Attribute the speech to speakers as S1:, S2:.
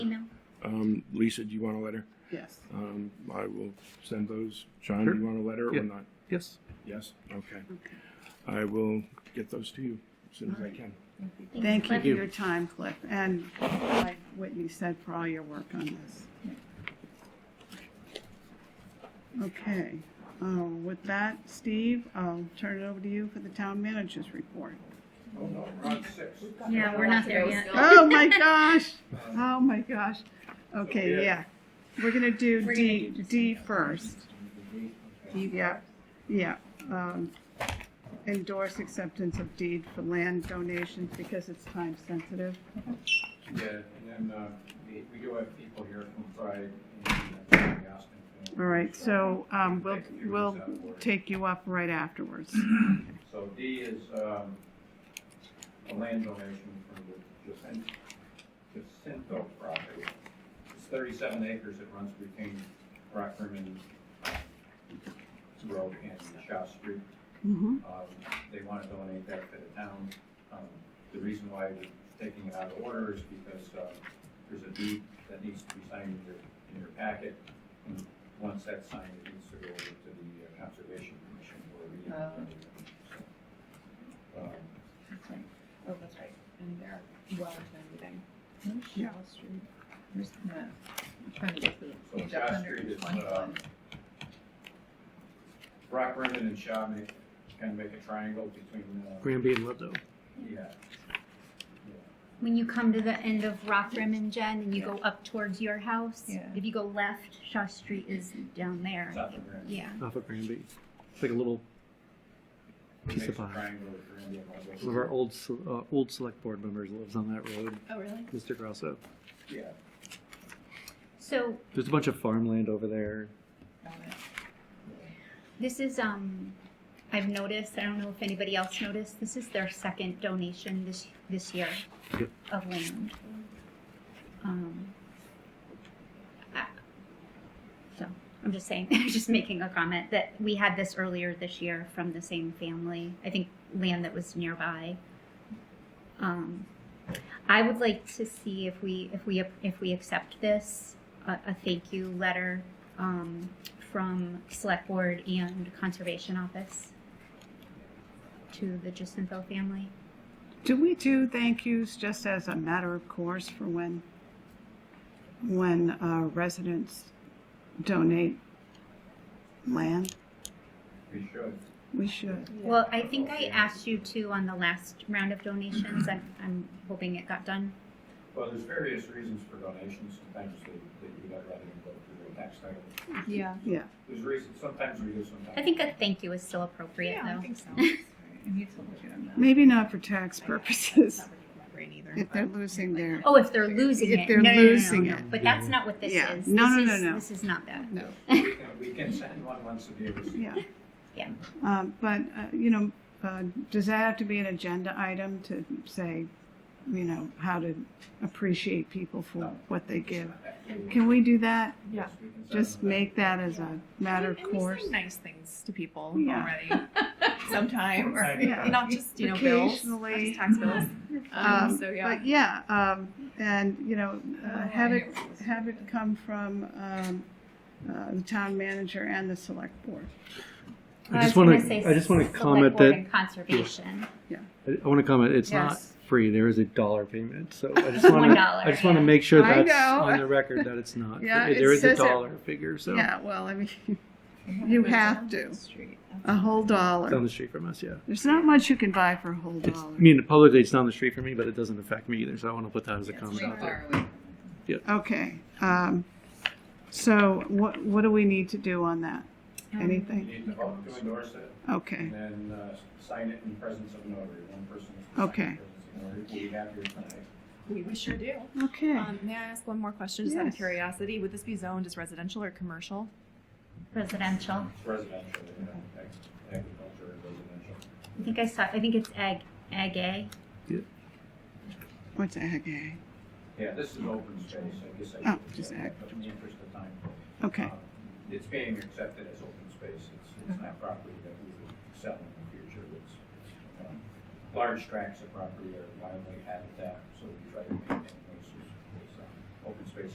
S1: Um, Lisa, do you want a letter?
S2: Yes.
S1: Um, I will send those. John,
S3: Sure.
S1: do you want a letter
S3: Yeah.
S1: or not?
S3: Yes.
S1: Yes? Okay.
S2: Okay.
S1: I will get those to you as soon as I can.
S2: Thank you for
S1: you.
S2: your time, Cliff, and like Whitney said, for all your work on this. Okay, uh, with that, Steve, I'll turn it over to you for the town manager's report.
S4: Yeah, we're not there yet.
S2: Oh, my gosh, oh, my gosh. Okay, yeah, we're gonna do
S4: We're gonna
S2: D,
S4: do just-
S2: D first. Yeah, yeah. um, Endorse acceptance of deed for land donations because it's time sensitive.
S5: Yeah, and then, uh, we, we do have people here from Pride and uh, Aspen.
S2: All right, so um, we'll, we'll take you up right afterwards.
S5: So D is, um, a land donation for the Jacin- Jacinto property. It's thirty-seven acres that runs between Rockford uh, Road and Shaw Street.
S2: Mhm.
S5: Um, They want to donate that to the town. Um, The reason why we're taking it out of order is because uh, there's a deed that needs to be signed in your, in your packet. And Once that's signed, it needs to go over to the uh, Conservation Commission where we. So, um,
S6: Oh, that's right. And they're well into everything.
S2: Yeah.
S6: Wall Street. There's no. I'm trying to get to the
S5: So
S6: page
S5: Shaw
S6: up under
S5: Street is, uh,
S6: 21.
S5: Rock Rimmon and Shaw make, kind of make a triangle between, uh,
S3: Granby and Ludlow.
S5: yeah. Yeah.
S4: When you come to the end of Rock Rim and Jen and you go up towards your house,
S6: Yeah.
S4: if you go left, Shaw Street is down there.
S5: It's up in Granby.
S4: Yeah.
S3: Off of Granby. It's like a little
S5: It
S3: Piece of
S5: makes a
S3: pie.
S5: triangle with Granby and Ludlow.
S3: one of our old se- uh, old select board members lives on that road,
S6: Oh, really?
S3: Mr. Grosso.
S5: Yeah.
S4: So
S3: There's a bunch of farmland over there.
S6: Got it.
S4: this is um I've noticed, I don't know if anybody else noticed, this is their second donation this this year
S3: Yep.
S4: of land. Um I- so I'm just saying, just making a comment that we had this earlier this year from the same family. I think land that was nearby. Um, I would like to see if we if we if we accept this a, a thank you letter um, from select board and conservation office to the Jacinto family.
S2: Do we do thank yous just as a matter of course for when, when uh, residents donate land?
S5: We should.
S2: We should.
S4: Well, I think I asked you to on the last round of donations. I'm, I'm hoping it got done.
S5: Well, there's various reasons for donations. Sometimes they, they do that rather than go through the tax title.
S6: Yeah.
S2: Yeah,
S5: There's reasons, sometimes we do, sometimes.
S4: I think a thank you is still appropriate
S6: Yeah, I
S4: though.
S6: think so. That's right. I need to look at them now.
S2: maybe not for tax
S6: I don't-
S2: purposes,
S6: that's not really in my brain either,
S2: if they're
S6: but-
S2: losing their,
S4: Oh, if they're losing
S2: If
S4: it.
S2: they're
S4: No, no, no, no, no,
S2: losing
S4: no.
S2: it.
S4: But that's not what this
S2: Yeah.
S4: is.
S2: No,
S4: This
S2: no,
S4: is-
S2: no, no.
S4: This is not that.
S2: no.
S5: We can- We can send one once a year.
S2: Yeah.
S4: Yeah.
S2: Um, but, uh, you know, uh, does that have to be an agenda item to say, you know, how to appreciate people for what they give? Can we do that?
S6: Yeah.
S5: Yes, we can send
S2: Just
S5: them that.
S2: make that as a matter of
S6: And we say
S2: course?
S6: nice things to people
S2: Yeah.
S6: already. Sometime, or
S5: Yeah.
S6: not just you know bills, not
S2: Occasionally.
S6: just tax bills. Um,
S2: Um,
S6: so yeah.
S2: But yeah, um, and, you know, uh,
S6: Oh, I
S2: have it,
S6: know what this is.
S2: have it come from, um, uh, the town manager and the select board.
S3: I
S4: was
S3: just want
S4: gonna say
S3: to. I just want to
S4: select
S3: comment
S4: board
S3: that
S4: and Conservation.
S3: I I want to comment. It's
S2: Yes.
S3: not free. There is a dollar payment. So I just want
S4: One
S3: to.
S4: dollar,
S3: I just want to
S4: yeah.
S3: make sure
S2: I
S3: that's
S2: know.
S3: on the record that it's not.
S2: Yeah,
S3: free.
S2: it
S3: there is a
S2: says it.
S3: dollar figure. So
S2: Yeah, well, I mean,
S6: Yeah,
S2: you
S6: but it's
S2: have
S6: on
S2: to.
S6: the street.
S2: a whole
S3: down
S2: dollar.
S3: the street from us. Yeah.
S2: There's not much you can buy for a whole
S3: It's,
S2: dollar.
S3: I mean, publicly, it's down the street from me, but it doesn't affect me either. So I want to put that as a
S6: It's
S3: comment
S6: way
S3: out there.
S6: far away.
S2: Okay, um, so what, what do we need to do on that?
S5: You
S6: Um,
S2: Anything?
S5: need to vote to endorse it
S2: Okay,
S5: and then uh, sign it in presence of notary. One person. is to sign
S2: Okay.
S5: in presence of notary. We have your tonight.
S6: We, we sure do.
S2: okay.
S6: Um, may I ask one more question, just out of
S2: Yes.
S6: curiosity? Would this be zoned as residential or commercial?
S4: Residential.
S5: It's residential, you know, ag- agriculture and residential.
S4: I think I saw. I think it's egg. Egg A.
S2: What's ag A?
S5: Yeah, this is open space, I guess. I
S2: Oh,
S5: should
S2: just
S5: say
S2: ag.
S5: that, But in the interest of time.
S2: Okay,
S5: Um, It's being accepted as open space, it's, it's not property that we would sell in the future, it's, um, large tracts of property are wildly habitat, so we try to maintain those as, as, um, open space